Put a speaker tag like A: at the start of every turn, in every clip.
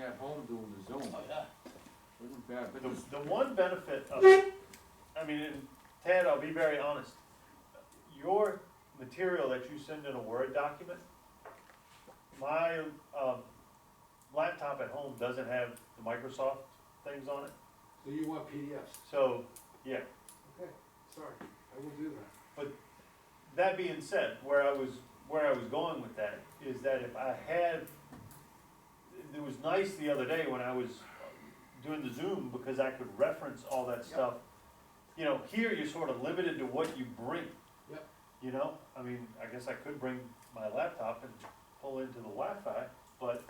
A: at home doing the Zoom,
B: Oh, yeah.
A: wasn't bad, but
C: The,
A: just,
C: the one benefit of, I mean, and Ted, I'll be very honest, your material that you send in a Word document, my, um, laptop at home doesn't have the Microsoft things on it,
D: So you want PDFs?
C: so, yeah.
D: Okay, sorry, I will do that.
C: That being said, where I was, where I was going with that is that if I had, it was nice the other day when I was doing the Zoom because I could reference all that stuff. You know, here you're sort of limited to what you bring.
D: Yep.
C: You know, I mean, I guess I could bring my laptop and pull into the Wi-Fi, but,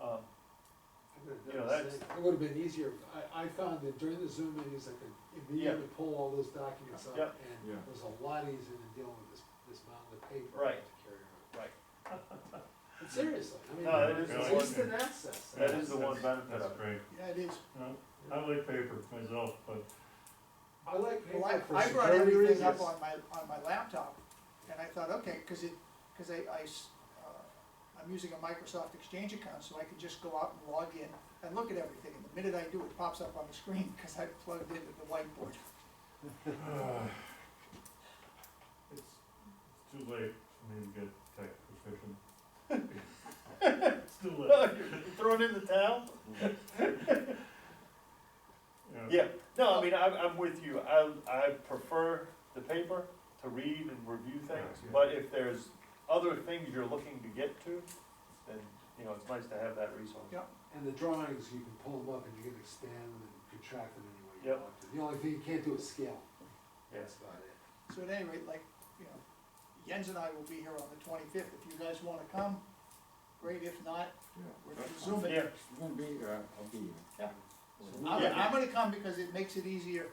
C: um,
D: I could've
C: You
D: done
C: know,
D: the
C: that's-
D: same. It would've been easier, I, I found that during the Zoom meetings, I could immediately pull all those documents up,
C: Yep.
D: and
A: Yeah.
D: it was a lot easier than dealing with this, this mountain of paper.
C: Right.
D: To carry around.
C: Right.
D: But Seriously, I mean,
C: No, that is
E: the
D: it's
E: one-
D: instant access.
C: that is the one
E: That's-
C: benefit of
E: That's
C: it.
E: great.
F: Yeah, it is.
E: I like paper myself, but
D: I like paper
F: Well, I,
D: for
F: I brought
D: security
F: everything up
D: reasons.
F: on my, on my laptop, and I thought, okay, cause it, cause I, I s- uh, I'm using a Microsoft Exchange account, so I can just go out and log in and look at everything, and the minute I do, it pops up on the screen, cause I plugged into the whiteboard.
E: it's it's too late for me to get tech proficient. It's too late.
C: Thrown in the towel? Yeah, no, I mean, I'm, I'm with you, I, I prefer the paper to read and review things,
E: Yeah.
C: but if there's other things you're looking to get to, then, you know, it's nice to have that resource.
F: Yeah.
D: And the drawings, you can pull them up and you can expand them and contract them any way you
C: Yep.
D: want to. The only thing you can't do is scale.
C: Yes.
D: That's about it.
F: So at any rate, like, you know, Jens and I will be here on the twenty-fifth, if you guys wanna come, great, if not,
A: yeah.
F: we're
A: that's fine.
F: gonna zoom it.
C: Yeah,
A: It's gonna be, uh, I'll be here.
F: Yeah.
A: So,
F: I'm,
C: Yeah.
F: I'm gonna come because it makes it easier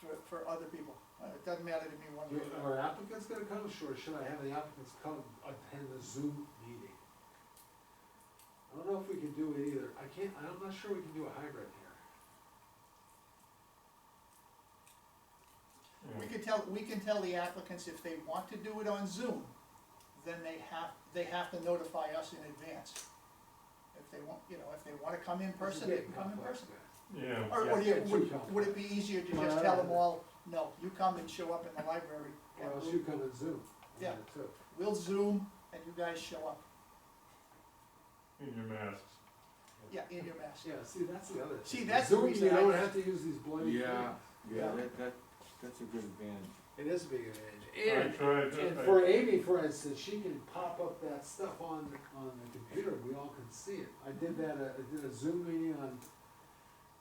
F: for, for other people, Uh, it doesn't matter to me one way or
D: Are
F: another.
D: applicants gonna come, sure, should I have the applicants come attend the Zoom meeting? I don't know if we can do it either, I can't, I'm not sure we can do a hybrid here.
F: We can tell, we can tell the applicants if they want to do it on Zoom, then they have, they have to notify us in advance. If they want, you know, if they wanna come in person, they can come in person.
E: Yeah,
F: Or, or do you- would,
D: Yeah.
F: would it be easier to just tell them all, no, you come and show up in the library,
D: Or
F: and
D: else you
F: we'll,
D: come in Zoom. on
F: Yeah.
D: that too.
F: we'll Zoom and you guys show up,
E: in your masks.
F: yeah, in your mask.
D: Yeah, see, that's the other. thing.
F: See, that's the
D: Zoom,
F: reason
D: You
F: I-
D: don't have to use these bloody.
A: Yeah, yeah,
D: Yeah.
A: that, that, that's a good advantage.
D: things. It is a big
E: I
D: advantage, and
E: tried,
D: And
E: I-
D: for Amy, for instance, she can pop up that stuff on, on the computer, we all can see it. I did that, uh, I did a Zoom meeting on,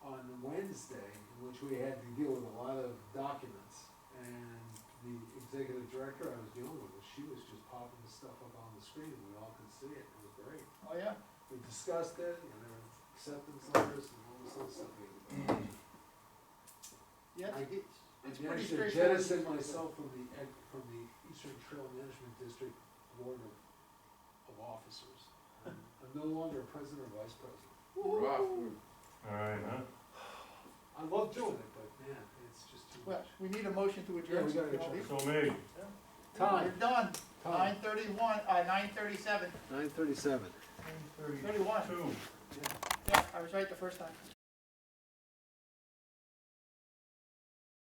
D: on Wednesday, in which we had to deal with a lot of documents. And the executive director I was dealing with, she was just popping the stuff up on the screen, and we all could see it, it was great.
F: Oh, yeah,
D: We discussed it, and there were acceptance letters and all this other stuff.
F: yeah,
D: I-
F: it's, it's
D: Again, I
F: pretty
D: should
F: straightforward.
D: jettison myself from the, ed- from the Eastern Trail Management District Board of, of Officers. I'm I'm no longer president or vice president.
A: Rough,
E: All right, huh?
D: I love doing it, but man, it's just too
F: Well,
D: much.
F: we need a motion to
D: Yeah,
F: adjourn.
D: we gotta
F: You know,
D: adjourn.
E: So me,
F: We're
D: Time,
F: done, nine
D: time,
F: thirty-one, uh, nine thirty-seven,
D: nine thirty-seven.
F: thirty-one,
E: two.
F: yeah, I was right the first time.